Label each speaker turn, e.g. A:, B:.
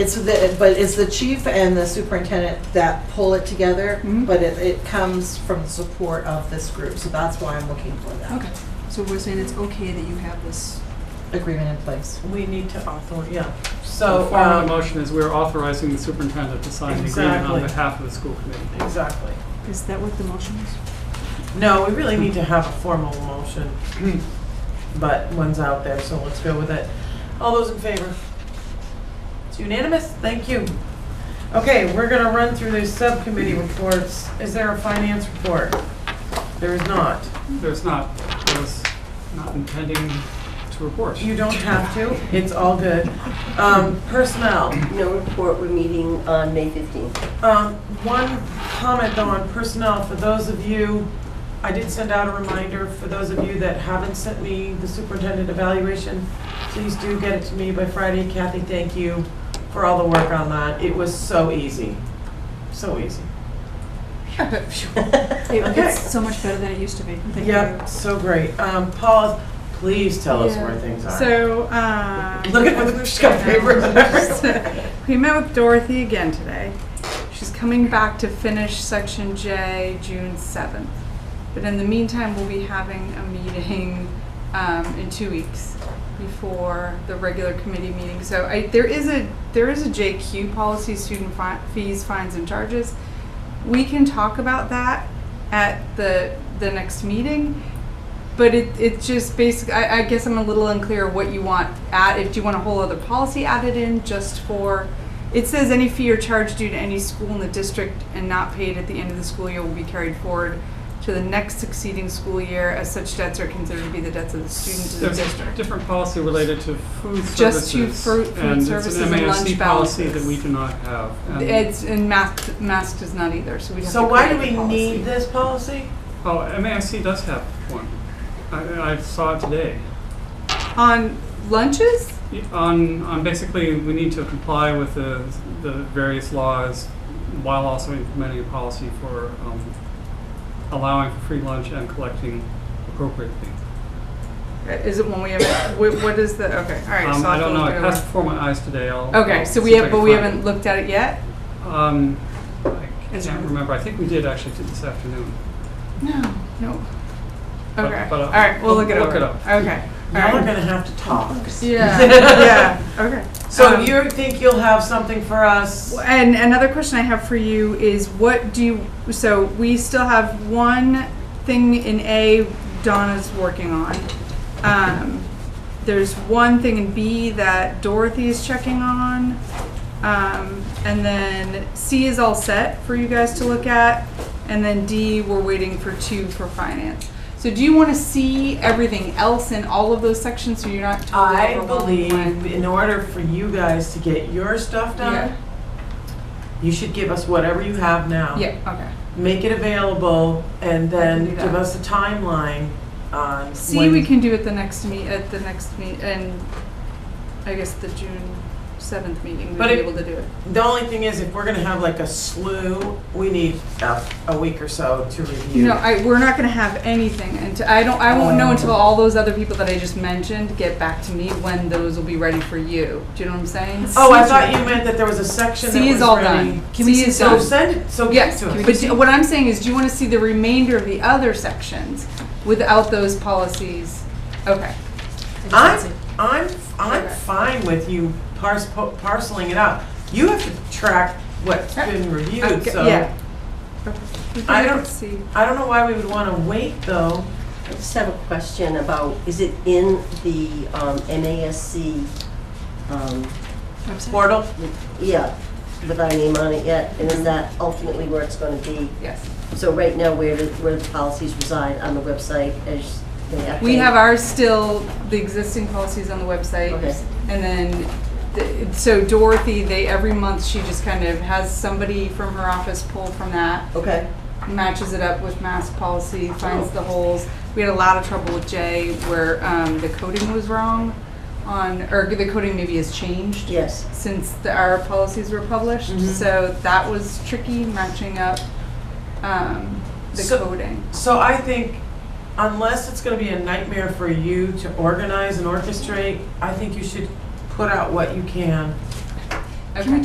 A: It's the, but it's the chief and the superintendent that pull it together,
B: Mhm.
A: but it, it comes from the support of this group, so that's why I'm looking for that
B: Okay, so we're saying it's okay that you have this,
A: agreement in place.
C: We need to author, yeah.
D: The
C: So,
D: form of the
C: um,
D: motion is we're authorizing the superintendent to sign the agreement on
C: Exactly.
D: behalf of the school committee.
C: exactly.
B: is that what the motion is?
C: No, we really need to have a formal motion, but one's out there, so let's go with it. All those in favor? It's unanimous, thank you. Okay, we're gonna run through these subcommittee reports. Is there a finance report? There is not.
D: There's not, there's not intending to report.
C: You don't have to, it's all good. Um, Personnel,
E: No report, we're meeting on May 15th.
C: Um, One comment though on personnel, for those of you, I did send out a reminder, for those of you that haven't sent me the superintendent evaluation, please do get it to me by Friday. Kathy, thank you for all the work on that. It was so easy, so easy. Okay.
B: It's so much better than it used to be, thank you.
C: Yep, so great. Um, Paul, please tell us where
F: Yeah.
C: things are.
F: So, um.
C: Look at whether she's got papers and everything.
F: We met with Dorothy again today. She's coming back to finish section J June seventh. But in the meantime, we'll be having a meeting, um, in two weeks before the regular committee meeting. So I, there is a, there is a JQ policy, student fi- fees, fines and charges. We can talk about that at the, the next meeting. But it, it just basically, I, I guess I'm a little unclear what you want added. Do you want a whole other policy added in just for, it says any fee or charge due to any school in the district and not paid at the end of the school year will be carried forward to the next succeeding school year as such debts are considered to be the debts of the student to the
D: There's a
F: district.
D: different policy related to food services.
F: Just to fruit- food services and
D: it's an MASC
F: lunch
D: policy that
F: balances.
D: we do not have. and-
F: It's, and math, math does not either, so we have to
C: So why do
F: create
C: we
F: a policy.
C: need this policy?
D: Oh, MASC does have one. I, I saw it today.
F: On lunches?
D: On, on basically, we need to comply with the, the various laws while also implementing a policy for um, allowing for free lunch and collecting appropriately.
F: Is it when we have, wh- what is the, okay, all right.
D: Um,
F: so I'll
D: I don't know,
F: look
D: it
F: over.
D: passed before my eyes today, I'll.
F: Okay,
D: I'll
F: so we
D: see if I
F: have, but
D: can
F: we
D: find it.
F: haven't looked at it yet?
D: Um, I
F: Is
D: can't
F: it-
D: remember, I think we did actually do this afternoon.
F: No. No.
D: But-
F: Okay.
D: but, uh,
F: All right. We'll look it
D: look
F: over.
D: it up.
F: Okay. All
C: Now we're
F: right.
C: gonna have to talk.
F: Yeah. yeah. Okay.
C: So
F: Um,
C: you think you'll have something for us?
F: And another question I have for you is what do you, so we still have one thing in A Donna's working on. Um, there's one thing in B that Dorothy is checking on. Um, and then C is all set for you guys to look at. And then D, we're waiting for two for finance. So do you want to see everything else in all of those sections so you're not totally
C: I
F: overwhelmed
C: believe
F: when-
C: in order for you guys to get your stuff
F: Yeah.
C: done, you should give us whatever you have now.
F: Yeah, okay.
C: Make it available and then
F: I can do
C: give
F: that.
C: us a timeline on.
F: See,
C: when-
F: we can do it the next meet, at the next meet, and I guess the June seventh meeting, we'd
C: But
F: be
C: it-
F: able to do it.
C: The only thing is, if we're gonna have like a slew, we need a, a week or so to review.
F: No, I, we're not gonna have anything, and I don't, I won't know until all those other people that I just mentioned get back to me when those will be ready for you. Do you know what I'm saying?
C: Oh, I thought you meant that there was a section that
F: C
C: was
F: is all
C: ready.
F: done. C is
C: So
F: done.
C: send it, so give it
F: Yes,
C: to us.
F: but do- what I'm saying is, do you wanna see the remainder of the other sections without those policies? Okay,
C: I'm, I'm, I'm
F: Okay.
C: fine with you pars- parceling it out. You have to track what's been reviewed,
F: Okay,
C: so.
F: Uh, yeah. We can
C: I
F: look
C: don't-
F: at C.
C: I don't know why we would want to wait, though.
E: I just have a question about, is it in the um, MASC, um,
C: Portal?
E: yeah, with our name on it yet? And is that ultimately where it's going to be?
F: Yes.
E: So right now, where do, where the policies reside on the website as they update?
F: We have ours still, the existing policies on the website.
E: Okay.
F: And then, th- so Dorothy, they, every month, she just kind of has somebody from her office pull from that,
E: Okay,
F: matches it up with mask policy, finds the holes. We had a lot of trouble with Jay where um, the coding was wrong on, or the coding maybe has changed
E: yes.
F: since the, our policies were published. So that was tricky, matching up um, the
C: So-
F: coding.
C: So I think unless it's going to be a nightmare for you to organize and orchestrate, I think you should put out what you can
G: Okay.
F: Can we